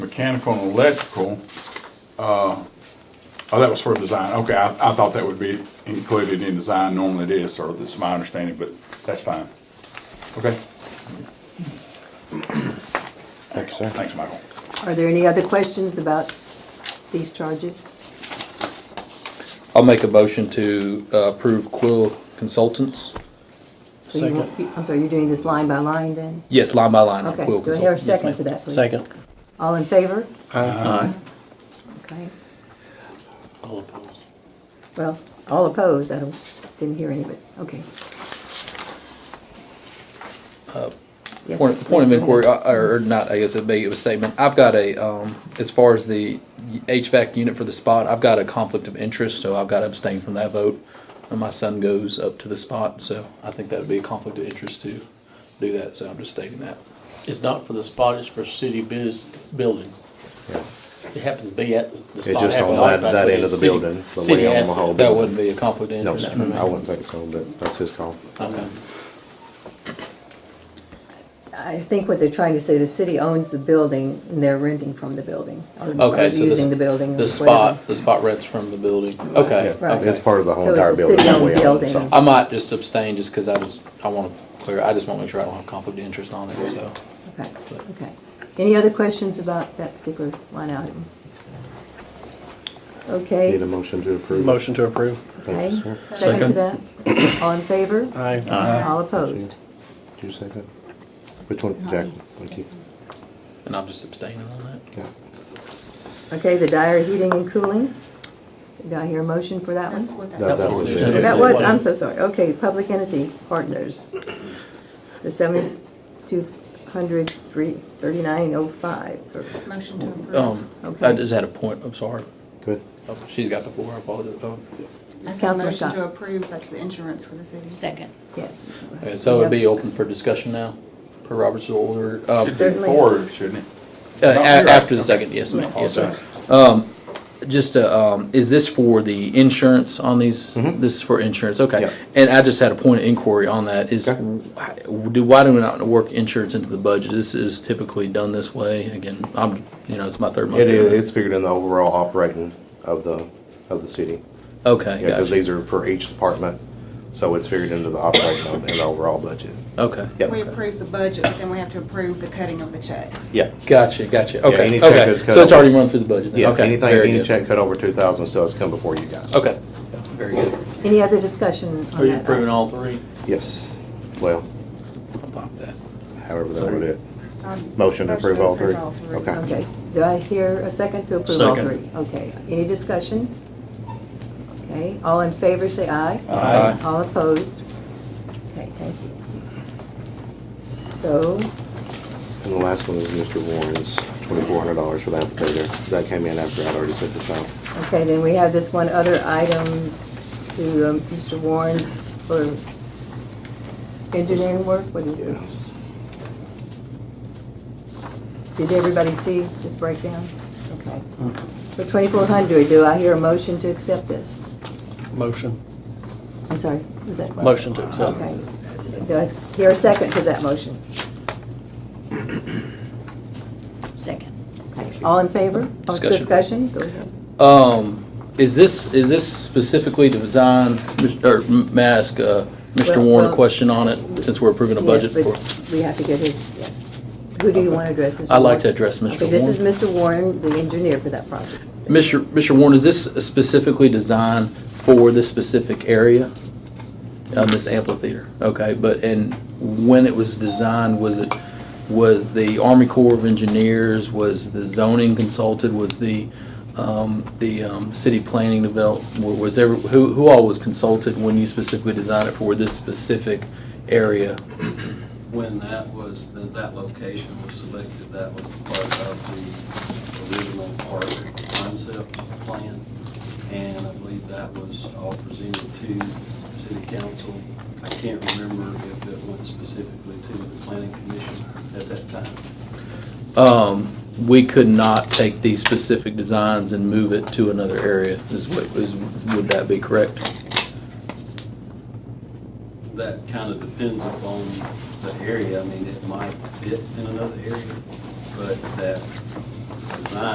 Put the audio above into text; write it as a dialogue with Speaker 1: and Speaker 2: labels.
Speaker 1: mechanical and electrical, uh, oh, that was for design. Okay, I, I thought that would be included in design. Normally it is, or that's my understanding, but that's fine. Okay,
Speaker 2: Thank you, sir.
Speaker 1: thanks, Michael.
Speaker 3: Are there any other questions about these charges?
Speaker 4: I'll make a motion to uh, approve Quill Consultants.
Speaker 3: So you won't- I'm sorry, you're doing this line by line then?
Speaker 4: Yes, line by line on
Speaker 3: Okay,
Speaker 4: Quill
Speaker 3: do I hear a
Speaker 4: Consultants.
Speaker 3: second to that, please?
Speaker 2: Second.
Speaker 3: All in favor?
Speaker 2: Aye.
Speaker 3: Okay,
Speaker 2: All opposed.
Speaker 3: well, all opposed, I don't, didn't hear anybody, okay. Yes,
Speaker 4: Uh, Point,
Speaker 3: sir,
Speaker 4: point of
Speaker 3: please go
Speaker 4: inquiry,
Speaker 3: ahead.
Speaker 4: uh, or or not, I guess it'd be a statement. I've got a, um, as far as the HVAC unit for the spot, I've got a conflict of interest, so I've got to abstain from that vote. And my son goes up to the spot, so I think that would be a conflict of interest to do that, so I'm just stating that.
Speaker 2: It's not for the spot, it's for city biz, building. It happens to be at the spot.
Speaker 5: It's just
Speaker 2: happened
Speaker 5: on
Speaker 2: all the
Speaker 5: that- that
Speaker 2: time, but
Speaker 5: end of
Speaker 2: it's
Speaker 5: the
Speaker 2: city-
Speaker 5: building, the
Speaker 2: city
Speaker 5: way on the
Speaker 2: asset.
Speaker 5: whole-
Speaker 4: That wouldn't be a conflict of
Speaker 5: No,
Speaker 4: interest
Speaker 5: sir,
Speaker 4: for me.
Speaker 5: I wouldn't think so, but that's his call.
Speaker 4: Okay.
Speaker 3: I think what they're trying to say, the city owns the building and they're renting from the building. or-
Speaker 4: Okay,
Speaker 3: or
Speaker 4: so
Speaker 3: Using the
Speaker 4: the,
Speaker 3: building.
Speaker 4: the
Speaker 3: or
Speaker 4: spot, the spot rents from the building. Okay,
Speaker 3: Right.
Speaker 4: okay.
Speaker 5: It's part of the whole
Speaker 3: So it's
Speaker 5: entire
Speaker 3: a
Speaker 5: building. that
Speaker 3: city-owned
Speaker 5: way on,
Speaker 3: building.
Speaker 5: so.
Speaker 4: I might just abstain just because I was, I want to clear, I just want to make sure I don't have conflict of interest on it, so.
Speaker 3: whatever. Okay, okay. Any other questions about that particular line item? Okay.
Speaker 5: Need a motion to approve.
Speaker 6: Motion to approve.
Speaker 5: Thank you,
Speaker 3: Okay,
Speaker 5: sir.
Speaker 3: second to that? All in favor?
Speaker 6: Aye.
Speaker 3: All opposed?
Speaker 5: Did you say that? Which one, Jack? Thank you.
Speaker 4: And I'm just abstaining on that.
Speaker 5: Yeah.
Speaker 3: Okay, the Dyer Heating and Cooling. Do I hear a motion for that one?
Speaker 7: That's what
Speaker 5: That,
Speaker 7: that
Speaker 5: that
Speaker 7: was.
Speaker 5: was
Speaker 2: Yeah.
Speaker 5: it.
Speaker 3: That was, I'm so sorry. Okay, Public Entity Partners. The seventy-two hundred three, thirty-nine oh five.
Speaker 7: Motion to approve.
Speaker 4: Um, I
Speaker 3: Okay.
Speaker 4: just had a point, I'm sorry.
Speaker 5: Good.
Speaker 4: Oh, She's got the floor, I apologize. Oh,
Speaker 7: I have a
Speaker 3: Councilman
Speaker 7: motion
Speaker 3: Scott.
Speaker 7: to approve, that's the insurance for the city.
Speaker 8: Second.
Speaker 3: Yes.
Speaker 4: Okay, so it'd be open for discussion now, per Robert's order. Um,
Speaker 1: Should be
Speaker 3: Certainly.
Speaker 1: forward, shouldn't
Speaker 4: Uh,
Speaker 1: No,
Speaker 4: a-
Speaker 1: you're right.
Speaker 4: after the second, yes, ma'am, yes, sir. Um, Just, uh, um, is this for the insurance on these? This is for insurance,
Speaker 5: Mm-hmm. Yeah.
Speaker 4: okay. And I just had a point of inquiry on that, is,
Speaker 5: Okay.
Speaker 4: why- do, why do we not work insurance into the budget? This is typically done this way, again, I'm, you know, it's my third month.
Speaker 5: It
Speaker 4: doing
Speaker 5: is,
Speaker 4: this.
Speaker 5: it's figured in the overall operating of the, of the city.
Speaker 4: Okay,
Speaker 5: Yeah, because
Speaker 4: gotcha,
Speaker 5: these are for each department, so it's figured into the operating of the overall budget.
Speaker 4: okay.
Speaker 5: Yep.
Speaker 7: We approve the budget, but then we have to approve the cutting of the checks.
Speaker 5: Yeah.
Speaker 4: Gotcha, gotcha,
Speaker 5: Yeah, any
Speaker 4: okay,
Speaker 5: check
Speaker 4: okay.
Speaker 5: that's cut
Speaker 4: So it's
Speaker 5: over-
Speaker 4: already run through the budget then,
Speaker 5: Yeah,
Speaker 4: okay.
Speaker 5: anything,
Speaker 4: very
Speaker 5: any
Speaker 4: good.
Speaker 5: check cut over two thousand still has to come before you guys.
Speaker 4: Okay, very good.
Speaker 3: Any other discussion
Speaker 2: Are
Speaker 3: on
Speaker 2: you
Speaker 3: that?
Speaker 2: approving all three?
Speaker 5: Yes. Well,
Speaker 4: How About that.
Speaker 5: however they want to do it.
Speaker 7: Um,
Speaker 5: Motion to approve all three?
Speaker 7: all three.
Speaker 5: Okay.
Speaker 3: Okay, do I hear a second to approve all
Speaker 6: Second.
Speaker 3: three? Okay, any discussion? Okay, all in favor, say aye.
Speaker 1: Aye.
Speaker 3: All opposed? Okay, thank you. So,
Speaker 5: And the last one is Mr. Warren's, twenty-four hundred dollars for the applicator. That came in after I'd already set this out.
Speaker 3: okay, then we have this one other item to um, Mr. Warren's for engineering work, what is this?
Speaker 5: Yes.
Speaker 3: Did everybody see this breakdown? Okay. So 2,400, do I hear a motion to accept this?
Speaker 6: Motion.
Speaker 3: I'm sorry, was that?
Speaker 6: Motion to accept.
Speaker 3: Okay. Do I s- hear a second to that motion?
Speaker 8: Second.
Speaker 3: Okay. All in favor? Oh,
Speaker 4: Discussion.
Speaker 3: Discussion? Go ahead.
Speaker 4: Um, is this, is this specifically to design, or may I ask, uh, Mr.
Speaker 3: Well,
Speaker 4: Warren a
Speaker 3: well-
Speaker 4: question on it, since we're approving a budget
Speaker 3: Yes,
Speaker 4: for?
Speaker 3: but We have to get his, yes. Who do you want to address, Mr.
Speaker 4: I'd like to
Speaker 3: Warren?
Speaker 4: address Mr.
Speaker 3: Okay, this is
Speaker 4: Warren.
Speaker 3: Mr. Warren, the engineer for that project.
Speaker 4: Mr. Mr. Warren, is this specifically designed for this specific area? Um, this amphitheater, okay, but, and when it was designed, was it, was the Army Corps of Engineers, was the zoning consulted, was the, um, the, um, city planning develop, wa- was ever, who, who all was consulted when you specifically designed it for this specific area?
Speaker 9: When that was, that that location was selected, that was part of the original park concept plan, and I believe that was all presented to city council. I can't remember if it went specifically to the planning commission at that time.
Speaker 4: Um, we could not take these specific designs and move it to another area, is what, is, would that be correct?
Speaker 9: That kind of depends upon the area, I mean, it might fit in another area, but that